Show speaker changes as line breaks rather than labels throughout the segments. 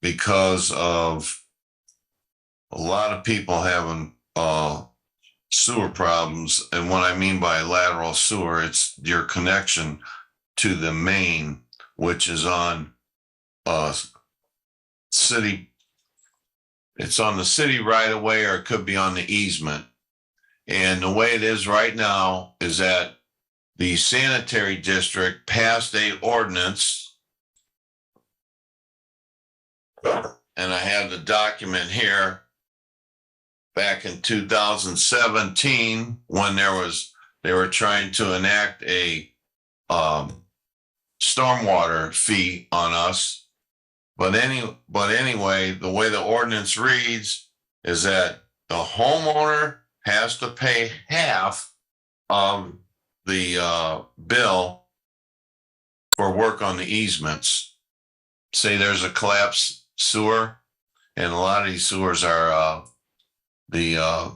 because of a lot of people having uh, sewer problems. And what I mean by lateral sewer, it's your connection to the main, which is on uh, city. It's on the city right away, or it could be on the easement. And the way it is right now is that the sanitary district passed a ordinance and I have the document here. Back in two thousand seventeen, when there was, they were trying to enact a um stormwater fee on us. But any, but anyway, the way the ordinance reads is that the homeowner has to pay half of the uh bill for work on the easements say there's a collapse sewer, and a lot of these sewers are uh, the uh,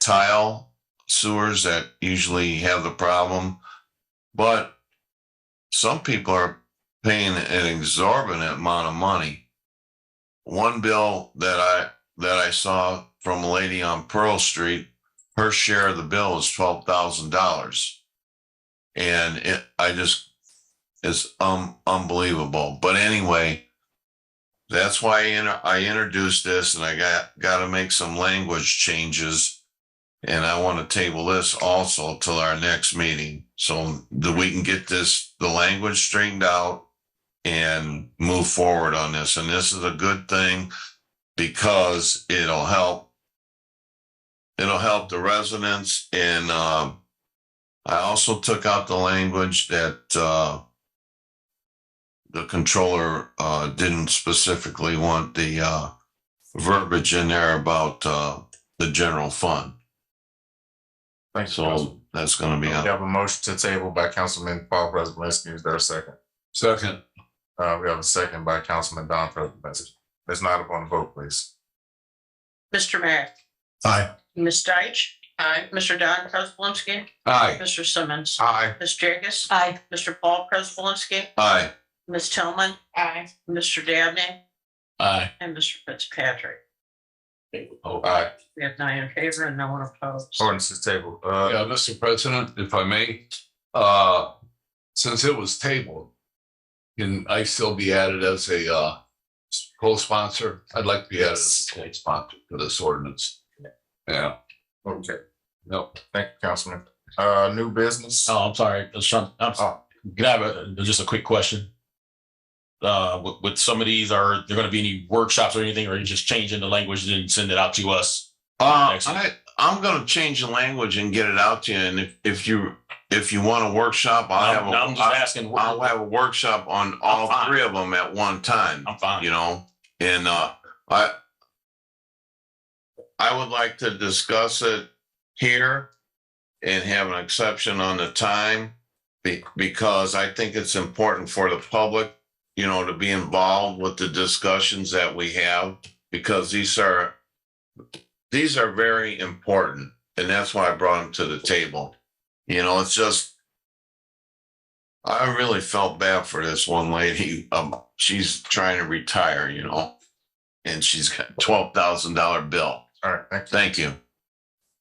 tile sewers that usually have the problem. But some people are paying an exorbitant amount of money. One bill that I that I saw from a lady on Pearl Street, her share of the bill is twelve thousand dollars, and it I just is um unbelievable. But anyway, that's why I, inter- I introduced this, and I got got to make some language changes, and I want to table this also till our next meeting, so that we can get this the language straightened out and move forward on this. And this is a good thing because it'll help. It'll help the residents, and uh, I also took out the language that. Uh, the controller uh, didn't specifically want the uh, verbiage in there about uh, the general fund.
Thank you. Councilman.
So that's going to
We
be on.
have a motion to table by Councilman Paul Preselinski. Is there a second?
Second,
Uh, we have a second by Councilman Don Preselinski. Ms. Nyla, upon the vote, please.
Mr. Merrick.
Aye.
Ms. Deitch. Aye. Mr. Don Prespolinski.
aye.
Mr. Simmons.
Aye.
Ms. Jagus. Aye. Mr. Paul Prespolinski.
Aye.
Ms. Tillman. Aye. Mr. Dabney
Aye.
and Mr. Fitzpatrick.
Oh.
Aye.
We have nine in favor and no one opposed.
Ordinance is tabled. Uh,
Yeah, Mr. President, if I may, uh, since it was tabled, can I still be added as a, uh, co-sponsor? I'd like to be added as a co-sponsor for this ordinance. Yeah,
okay.
no,
Thank you, Councilman. Uh, new business. Oh,
Oh, I'm sorry, Mr. Trump. I'm sorry. Can I have a, just a quick question? Uh, with, with some of these, are there gonna be any workshops or anything, or are you just changing the language and send it out to us?
Uh, I,
Excellent.
I'm going to change the language and get it out to you. And if, if you if you want a workshop, I'll
I'm, I'm
have a,
just
I-
asking.
I'll have a workshop on all
fine.
three of them at one time.
I'm fine.
you know, and uh, I I would like to discuss it here and have an exception on the time be, because I think it's important for the public, you know, to be involved with the discussions that we have because these are these are very important, and that's why I brought them to the table. You know, it's just I really felt bad for this one lady. Um, she's trying to retire, you know, and she's got twelve thousand dollar bill.
All right, thank you.
Thank you.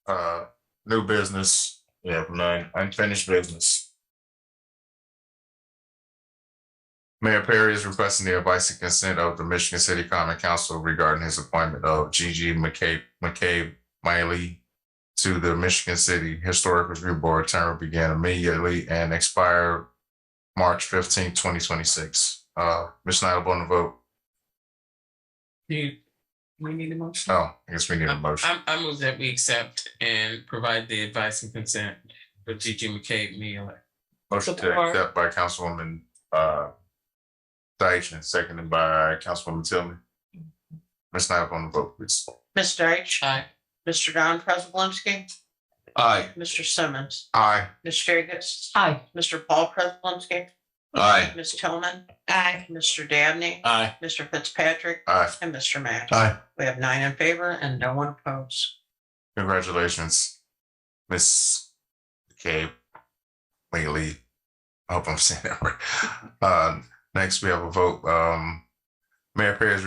Uh, new business. We have none. Unfinished business. Mayor Perry is requesting the advice and consent of the Michigan City Common Council regarding his appointment of Gigi McCabe, McCabe Miley to the Michigan City Historic Review Board. Term will begin immediately and expire March fifteenth, twenty twenty-six. Uh, Ms. Nyla, on the vote.
Do we need a motion?
Oh, I guess we need a motion.
I, I move that we accept and provide the advice and consent for Gigi McCabe Mealy.
Motion to
Support.
accept by Councilwoman, uh, Deitch and seconded by Councilwoman Tillman. Ms. Nyla on the vote, please.
Ms. Deitch.
Aye.
Mr. Don Prespolinski.
aye.
Mr. Simmons.
Aye.
Ms. Jagus. Aye. Mr. Paul Prespolinski.
Aye.
Ms. Tillman. Aye. Mr. Dabney.
Aye.
Mr. Fitzpatrick
Aye.
and Mr. Matt.
Aye.
We have nine in favor and no one opposed.
Congratulations, Ms. Gabe Lately. I hope I'm saying that right. Uh, next, we have a vote. Um, Mayor Perry is